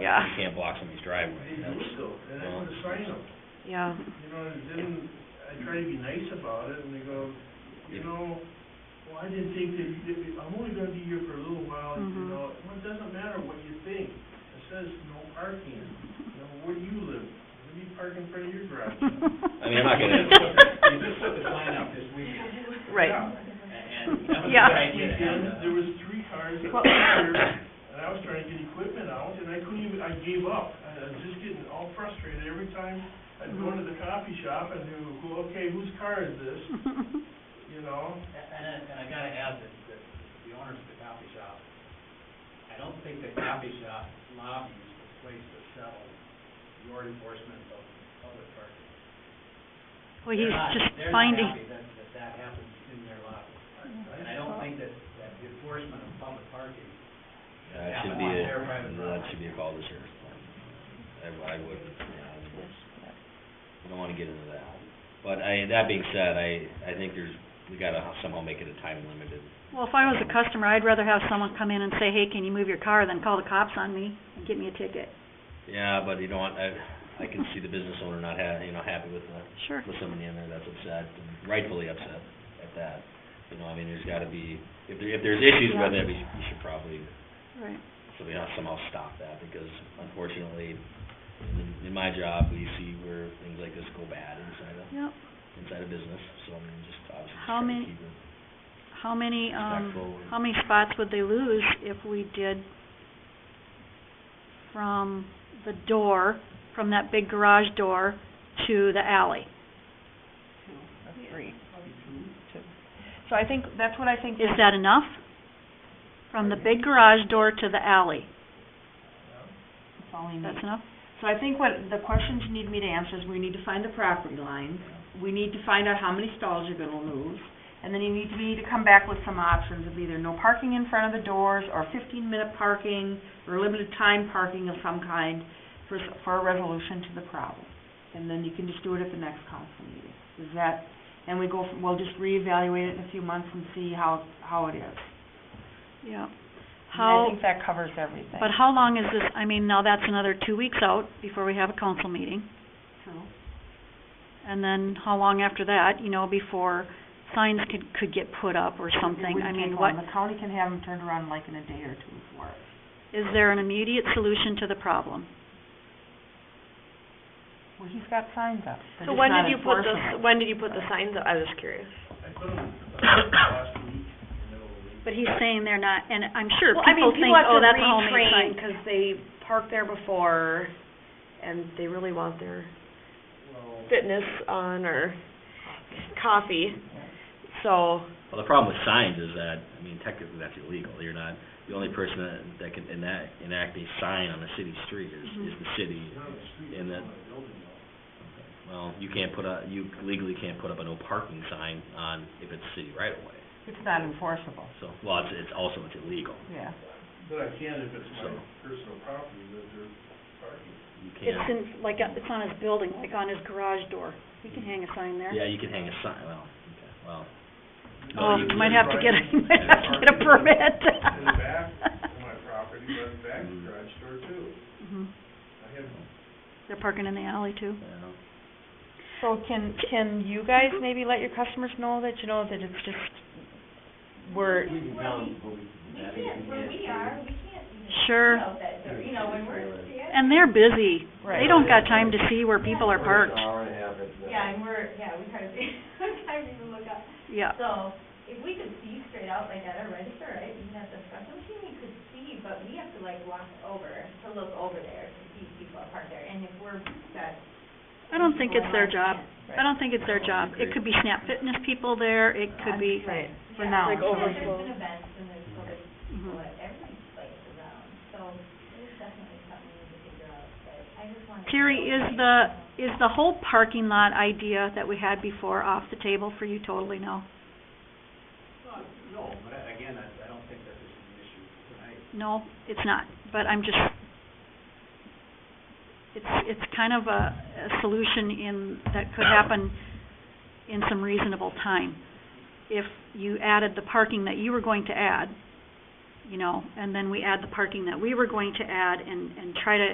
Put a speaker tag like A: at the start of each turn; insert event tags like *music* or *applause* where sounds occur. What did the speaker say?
A: Yeah.
B: You can't block somebody's driveway, that's,
C: illegal, and I put a sign
B: *laughs*
C: up,
A: Yeah,
C: you know, and then I try to be nice about it, and they go, you
B: Yeah.
C: know, well, I didn't think that, that we- I'm only gonna be here for a little while, you
A: Mhm.
C: know, well, it doesn't matter what you think, it says no parking, you know, where do you live? Where do you park in front of your garage?
B: I mean, I'm not
A: *laughs*
B: gonna,
D: You just put the sign up this weekend,
A: right.
C: Yeah.
D: and that was a
A: Yeah.
D: good
C: Last
D: idea to have
C: weekend,
D: that.
C: there was three cars that
A: Well-
C: were here, and I was trying to get equipment out, and I couldn't even, I gave up. I I was just getting all frustrated every time I'd go
A: Mhm.
C: into the coffee shop and do, who- okay, whose car is this, you know?
D: And, and and I gotta add that, that the owners of the coffee shop, I don't think the coffee shop lobby is the place to settle your enforcement of public parking.
A: Well, he's
D: They're not-
A: just finding,
D: They're not happy that, that that happens in their lobby. And I don't think that, that the enforcement of public parking
B: that should be a, that should be a call to sheriff's department. I, I would, yeah, I don't wanna get into that. But I, that being said, I, I think there's, we gotta somehow make it a time limited.
A: well, if I was a customer, I'd rather have someone come in and say, hey, can you move your car, than call the cops on me and get me a ticket.
B: Yeah, but you don't want, I, I can see the business owner not ha- you know, happy with the,
A: Sure.
B: with somebody in there that's upset, and rightfully upset at that. You know, I mean, there's gotta be, if there, if there's issues with it, we should- you should probably
A: Right.
B: So we have to somehow stop that, because unfortunately, in- in my job, we see where things like this go bad inside a,
A: Yep.
B: inside a business, so I mean, just obviously just
A: How
B: try to
A: many-
B: keep it.
A: How many,
B: Respectful
A: um,
B: and-
A: how many spots would they lose if we did from the door, from that big garage door to the alley?
E: That's three. Two. So I think, that's what I think.
A: Is that enough? From the big garage door to the alley,
E: That's all we need.
A: that's enough?
E: So I think what the questions you need me to answer is we need to find the property lines. We need to find out how many stalls you're gonna lose. And then you need to, we need to come back with some options of either no parking in front of the doors or fifteen minute parking or limited time parking of some kind for, s- for a resolution to the problem. And then you can just do it at the next council meeting. Is that, and we go, from- we'll just reevaluate it in a few months and see how, how it is. And
A: Yeah.
E: I
A: How,
E: think that covers everything.
A: but how long is this, I mean, now that's another two weeks out before we have a council meeting.
E: So-
A: And then how long after that, you know, before signs could, could get put up or something? I mean, what,
E: The county can have them turned around like in a day or two for us.
A: is there an immediate solution to the problem?
E: Well, he's got signs up.
F: So when did you put the, when did you put the signs up? I was curious.
C: I put them last week, you know,
A: But he's saying they're not, and I'm sure
F: Well, I mean,
A: people think, oh, that's a homemade sign.
F: have to retrain 'cause they parked there before and they really want their
C: well,
F: fitness on or coffee. So,
B: Well, the problem with signs is that, I mean, technically that's illegal, you're not, the only person that, that can enact, enact a sign on a city street is,
A: Mm-hmm.
B: is the city.
C: down the street,
B: And that-
C: it's on my building though.
B: Well, you can't put a, you legally can't put up a no parking sign on, if it's city right away.
E: It's not enforceable,
B: so, well, it's, it's also, it's illegal,
E: yeah.
C: But I can if it's my
B: So-
C: personal property that they're parking.
B: you can't.
A: It's in, like, uh, it's on his building, like on his garage door. We can hang a sign there. *laughs*
B: Yeah, you can hang a sign, well, okay, well. no,
A: Oh, you
B: you can't.
A: might have to get, *laughs* you might have to get a
C: In the
A: permit.
C: back
A: *laughs*
C: of my property, but back of the garage door too.
A: Mhm.
C: I have
A: They're parking in the alley too.
B: Yeah.
E: So can, can you guys maybe let your customers know that, you know, that it's just, we're,
D: We can balance, but we, that is, we
G: where we are, we can't even
A: Sure.
G: know that, they're- you know, when we're standing.
A: And they're busy. They
E: Right.
A: don't got time to see where people are parked.
G: Yeah, and we're, yeah, *laughs* we hardly, sometimes even look up.
A: Yeah.
G: So if we could see straight out like at a register, right, even at the special machine, we could see, but we have to like walk over, to look over there to see people are parked there. And if we're set.
A: I don't think it's their job. I don't think it's their job.
B: Right.
A: It could be Snap Fitness people there, it could be,
E: right, for
G: Yeah.
E: now.
F: Like
G: So
F: over-
G: There's been events and there's other people
A: Mhm.
G: at every place around, so it's definitely something we need to figure out, but I just wanted. to
A: Terry,
G: know,
A: is
G: like,
A: the,
G: you know.
A: is the whole parking lot idea that we had before off the table for you totally now?
D: Well, No, but I- again, I, I don't think that this is an issue tonight.
A: No, it's not, but I'm just, it's, it's kind of a, a solution in, that could happen in some reasonable time. If you added the parking that you were going to add, you know, and then we add the parking that we were going to add and, and try to